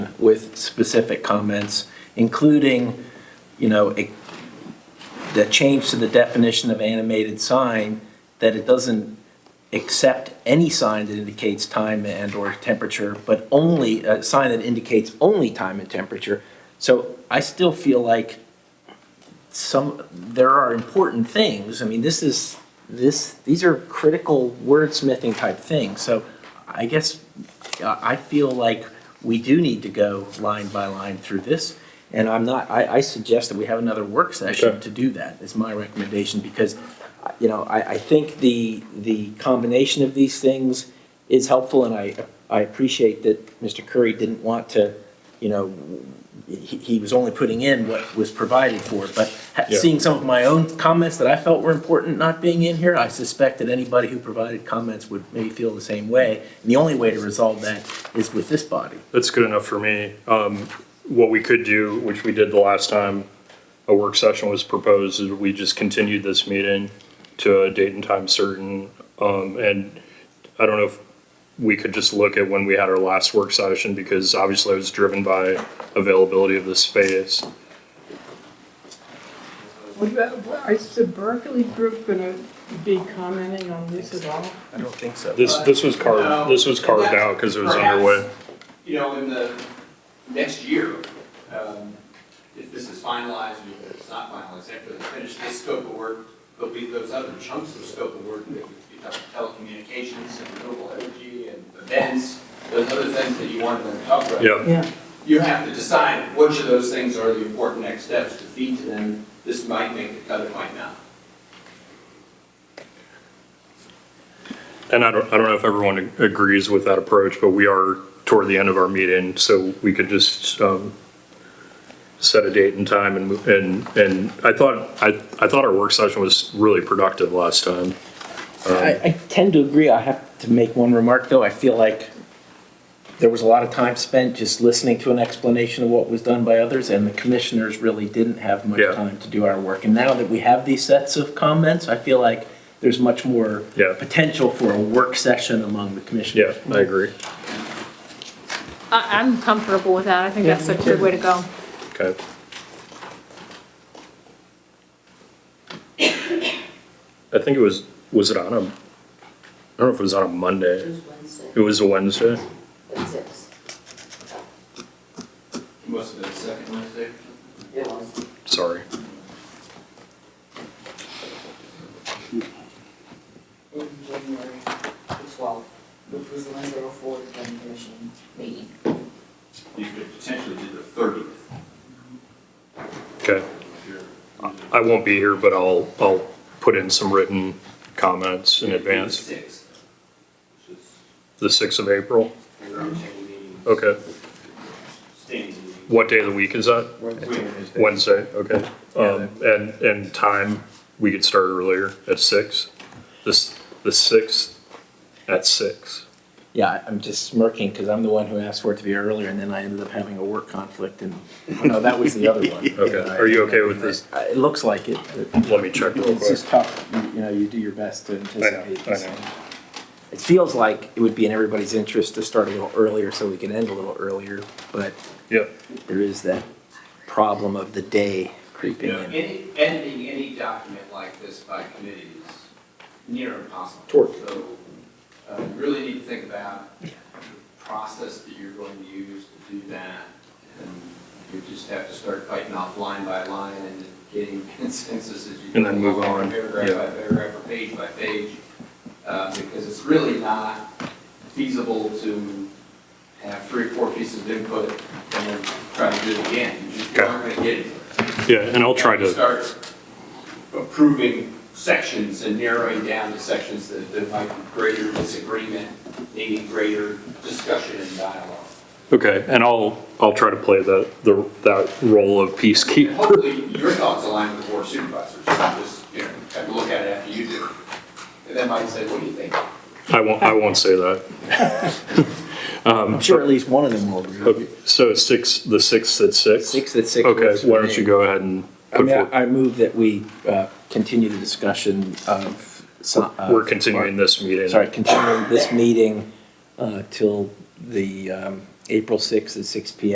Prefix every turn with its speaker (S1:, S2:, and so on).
S1: with specific comments, including, you know, a- the change to the definition of animated sign, that it doesn't accept any sign that indicates time and/or temperature, but only, a sign that indicates only time and temperature. So I still feel like some, there are important things. I mean, this is, this, these are critical wordsmithing type things. So I guess uh, I feel like we do need to go line by line through this. And I'm not, I, I suggest that we have another work session
S2: Okay.
S1: to do that, is my recommendation, because, you know, I, I think the, the combination of these things is helpful, and I, I appreciate that Mr. Curry didn't want to, you know, he, he was only putting in what was provided for, but ha-
S2: Yeah.
S1: seeing some of my own comments that I felt were important not being in here, I suspect that anybody who provided comments would maybe feel the same way. And the only way to resolve that is with this body.
S2: That's good enough for me. Um, What we could do, which we did the last time a work session was proposed, is we just continued this meeting to a date and time certain. Um, And I don't know if we could just look at when we had our last work session, because obviously I was driven by availability of the space.
S3: What about, what- is the Berkeley group gonna be commenting on this at all?
S1: I don't think so.
S2: This, this was carved, this was carved out because it was underway.
S4: You know, in the next year, um, if this is finalized, or if it's not finalized, after they finish this scope of work, there'll be those other chunks of scope of work that would be tele- telecommunications and renewable energy and events, those other things that you wanted them to talk about.
S2: Yeah,
S3: Yeah.
S4: You have to decide which of those things are the important next steps to feed to them. This might make the cut, it might not.
S2: and I don't, I don't know if everyone ag- agrees with that approach, but we are toward the end of our meeting, so we could just um, set a date and time and, mo- and, and I thought, I, I thought our work session was really productive last time. Um,
S1: I, I tend to agree. I have to make one remark, though. I feel like there was a lot of time spent just listening to an explanation of what was done by others, and the commissioners really didn't have much
S2: Yeah.
S1: time to do our work. And now that we have these sets of comments, I feel like there's much more
S2: Yeah.
S1: potential for a work session among the commissioners.
S2: Yeah, I agree.
S5: I, I'm comfortable with that. I think
S3: Yeah,
S5: that's
S3: me
S5: a good way to go.
S2: Okay. I think it was, was it on a, I don't know if it was on a Monday.
S6: Tuesday, Wednesday,
S2: It was a Wednesday.
S6: at six.
S4: Most of the second Wednesday.
S6: It was.
S2: Sorry.
S6: In January, the twelfth, which was the Wednesday before the planning commission meeting.
S4: You could potentially do the thirtieth.
S2: Okay. I won't be here, but I'll, I'll put in some written comments in advance.
S4: Sixth. Which is-
S2: The 6th of April? Okay.
S4: Standing meeting.
S2: What day of the week is that? Wednesday, okay. Um, and, and time, we could start earlier at 6? This, the 6th at 6?
S1: Yeah, I- I'm just smirking because I'm the one who asked for it to be earlier, and then I ended up having a work conflict, and, oh, no, that was the other one.
S2: Okay. Are you okay with this?
S1: Uh, It looks like it. but-
S2: Let me check real
S1: It's
S2: quick.
S1: just tough, you- you know, you do your best to anticipate.
S2: I know.
S1: this. It feels like it would be in everybody's interest to start a little earlier so we can end a little earlier, but
S2: Yeah.
S1: there is that problem of the day creeping in.
S4: Any, ending any document like this by committee is near impossible.
S1: Torture.
S4: So, uh, you really need to think about the process that you're going to use to do that. And you just have to start fighting off line by line and getting consensus as you.
S2: And then
S4: go
S2: move
S4: along,
S2: on,
S4: Paragraph
S2: yeah.
S4: by paragraph, or page by page, uh, because it's really not feasible to have three or four pieces of input and then try to do it again. You just
S2: Okay.
S4: aren't going to get it.
S2: Yeah, and I'll try to,
S4: Start approving sections and narrowing down the sections that, that might be greater disagreement, needing greater discussion and dialogue.
S2: okay, and I'll, I'll try to play the, the, that role of
S4: And
S2: peacekeeper.
S4: hopefully, your thoughts align with the board supervisors, just, you know, have a look at it after you do. And then might say, what do you think?
S2: I won't, I won't say that.
S1: I'm sure at least one of them will. agree.
S2: Okay, so it's six, the sixth at six?
S1: Six at six.
S2: Okay,
S1: works for
S2: why don't you
S1: me.
S2: go ahead and
S1: I
S2: put
S1: mean,
S2: forth,
S1: I I move that we uh, continue the discussion of. so- of-
S2: we're continuing this meeting.
S1: Sorry, continuing this meeting uh, till the um, April 6th at six PM.